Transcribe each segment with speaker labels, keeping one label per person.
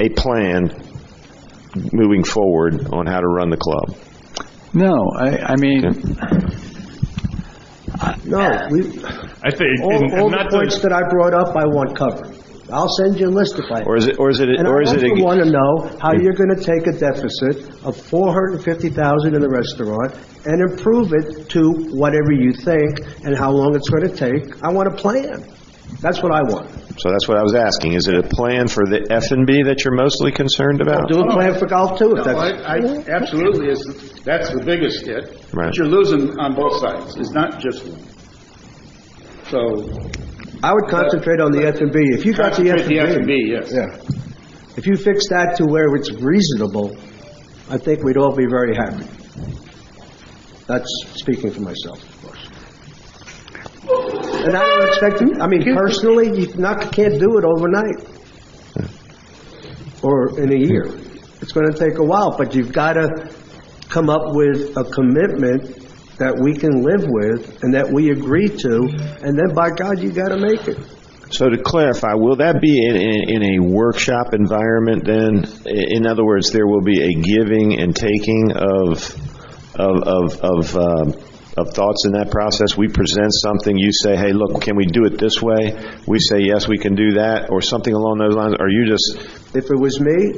Speaker 1: a plan moving forward on how to run the club?
Speaker 2: No, I, I mean,
Speaker 3: No, we,
Speaker 4: I think, and-
Speaker 3: all, all
Speaker 4: and
Speaker 3: the
Speaker 4: not
Speaker 3: points
Speaker 4: to,
Speaker 3: that I brought up, I want covered. I'll send you a list if I.
Speaker 1: Or is it, or is it,
Speaker 3: And I
Speaker 1: or is it?
Speaker 3: also
Speaker 1: a-
Speaker 3: want to know how you're going to take a deficit of 450,000 in the restaurant and improve it to whatever you think and how long it's going to take. I want a plan. That's what I want.
Speaker 1: So that's what I was asking. Is it a plan for the F and B that you're mostly concerned about?
Speaker 3: Do a plan for golf too, if
Speaker 5: No, I,
Speaker 3: that's,
Speaker 5: I, absolutely, is, that's the biggest hit.
Speaker 1: Right.
Speaker 5: But you're losing on both sides, it's not just one. So,
Speaker 3: I would concentrate on the F and B. If you got the F
Speaker 5: concentrate the F
Speaker 3: and
Speaker 5: and
Speaker 3: B.
Speaker 5: B, yes.
Speaker 3: Yeah. If you fix that to where it's reasonable, I think we'd all be very happy. That's speaking for myself, of course. And I don't expect, I mean, personally, you not, can't do it overnight or in a year. It's going to take a while, but you've got to come up with a commitment that we can live with and that we agree to, and then by God, you got to make it.
Speaker 1: So to clarify, will that be in, in, in a workshop environment then? I- In other words, there will be a giving and taking of, of, of, of, um, of thoughts in that process? We present something, you say, hey, look, can we do it this way? We say, yes, we can do that, or something along those lines? Or you just,
Speaker 3: If it was me,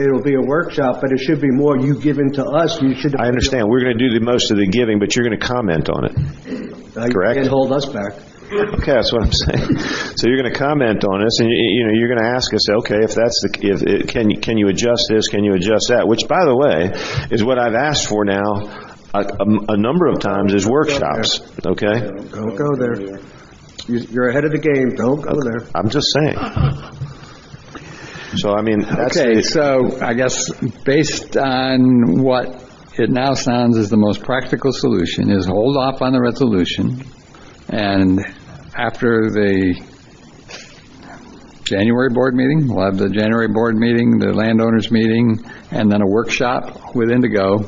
Speaker 3: it'll be a workshop, but it should be more you giving to us, you should.
Speaker 1: I understand, we're going to do the most of the giving, but you're going to comment on it.
Speaker 3: Now, you
Speaker 1: correct.
Speaker 3: Can't hold us back.
Speaker 1: Okay, that's what I'm saying. So you're going to comment on this, and you, you know you're going to ask us, okay, if that's the, if it, can you can you adjust this, can you adjust that? Which, by the way, is what I've asked for now a, a, a number of times is workshops. Okay,
Speaker 3: Don't go there. You- You're ahead of the game, don't go there.
Speaker 1: I'm just saying. So I mean, that's
Speaker 2: okay,
Speaker 1: the,
Speaker 2: so I guess based on what it now sounds is the most practical solution is hold off on the resolution and after the January board meeting, we'll have the January board meeting, the landowners meeting, and then a workshop with Indigo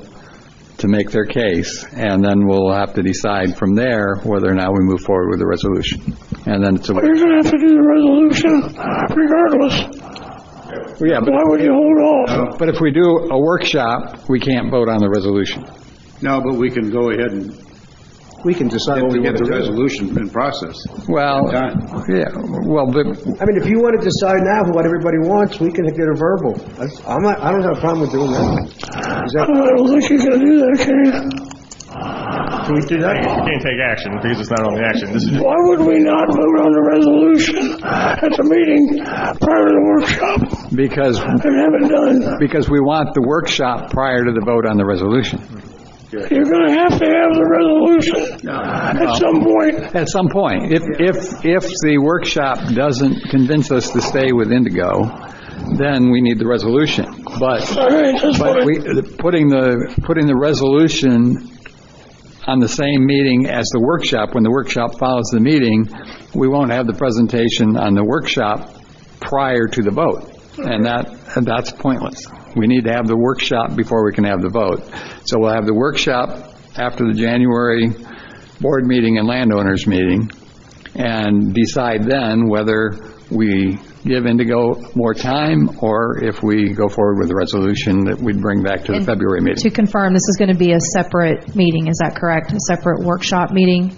Speaker 2: to make their case. And then we'll have to decide from there whether or not we move forward with the resolution. And then it's a.
Speaker 6: You're gonna have to do the resolution regardless.
Speaker 2: Yeah, but Uh,
Speaker 6: Why would you hold off?
Speaker 2: But if we do a workshop, we can't vote on the resolution.
Speaker 5: No, but we can go ahead and
Speaker 3: We can decide what we
Speaker 5: get
Speaker 3: want to
Speaker 5: the
Speaker 3: do.
Speaker 5: resolution in process.
Speaker 2: Well,
Speaker 5: Done.
Speaker 2: yeah, well, but,
Speaker 3: I mean, if you want to decide now what everybody wants, we can get a verbal. That's- I'm not, I don't have a problem with doing that. Is
Speaker 6: I
Speaker 3: that,
Speaker 6: don't think you can do that, can you?
Speaker 3: can we do
Speaker 4: you
Speaker 3: that?
Speaker 4: can't take action because it's not on the action. This is just,
Speaker 6: Why would we not vote on the resolution at the meeting prior to the workshop
Speaker 2: because,
Speaker 6: and have it done?
Speaker 2: because we want the workshop prior to the vote on the resolution,
Speaker 6: You're gonna have to have the resolution at some point.
Speaker 2: at some point. If, if, if the workshop doesn't convince us to stay with Indigo, then we need the resolution. But,
Speaker 6: All right, that's
Speaker 2: but
Speaker 6: fine.
Speaker 2: we, putting the, putting the resolution on the same meeting as the workshop, when the workshop follows the meeting, we won't have the presentation on the workshop prior to the vote. And that, and that's pointless. We need to have the workshop before we can have the vote. So we'll have the workshop after the January board meeting and landowners meeting, and decide then whether we give Indigo more time, or if we go forward with the resolution that we'd bring back to the February meeting.
Speaker 7: To confirm, this is going to be a separate meeting, is that correct? A separate workshop meeting?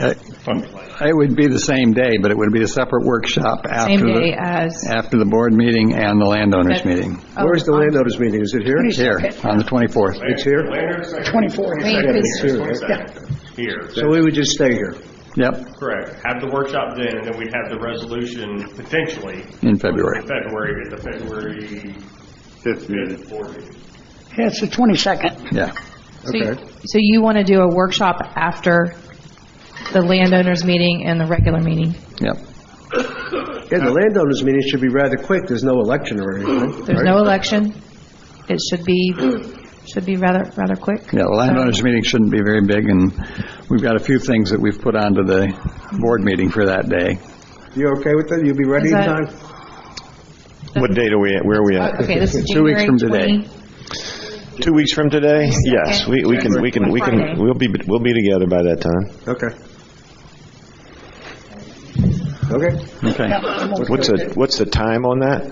Speaker 2: Uh, It would be the same day, but it would be a separate workshop after.
Speaker 7: Same
Speaker 2: the-
Speaker 7: day as-
Speaker 2: After the board meeting and the landowners
Speaker 7: Okay.
Speaker 2: meeting.
Speaker 3: Where's the landowners meeting? Is it here?
Speaker 2: Here, on the 24th.
Speaker 3: It's here?
Speaker 6: Twenty-four.
Speaker 7: Because
Speaker 4: here.
Speaker 3: So we would just stay here.
Speaker 2: Yep,
Speaker 4: Correct. Have the workshop then, and then we'd have the resolution potentially
Speaker 2: in February.
Speaker 4: February, at the February
Speaker 5: Fifth meeting.
Speaker 4: board meeting.
Speaker 6: Yeah, it's the twenty-second.
Speaker 2: Yeah.
Speaker 7: So you- so you want to do a workshop after the landowners meeting and the regular meeting?
Speaker 2: Yep.
Speaker 3: Yeah, the landowners meeting should be rather quick. There's no election or anything.
Speaker 7: There's no election, it should be, should be rather, rather quick?
Speaker 2: Yeah, the landowners meeting shouldn't be very big, and we've got a few things that we've put onto the board meeting for that day.
Speaker 3: You okay with that? You'll be ready in
Speaker 7: Is that-
Speaker 3: time?
Speaker 1: what date are we at? Where are we at?
Speaker 7: Okay, this is
Speaker 2: Two weeks
Speaker 7: January
Speaker 2: from today.
Speaker 7: 20.
Speaker 1: Two weeks from today? Yes, we, we can we can we can
Speaker 7: Friday.
Speaker 1: we'll be we'll be together by that time.
Speaker 3: Okay. Okay.
Speaker 2: Okay.
Speaker 1: What's the what's the time on that?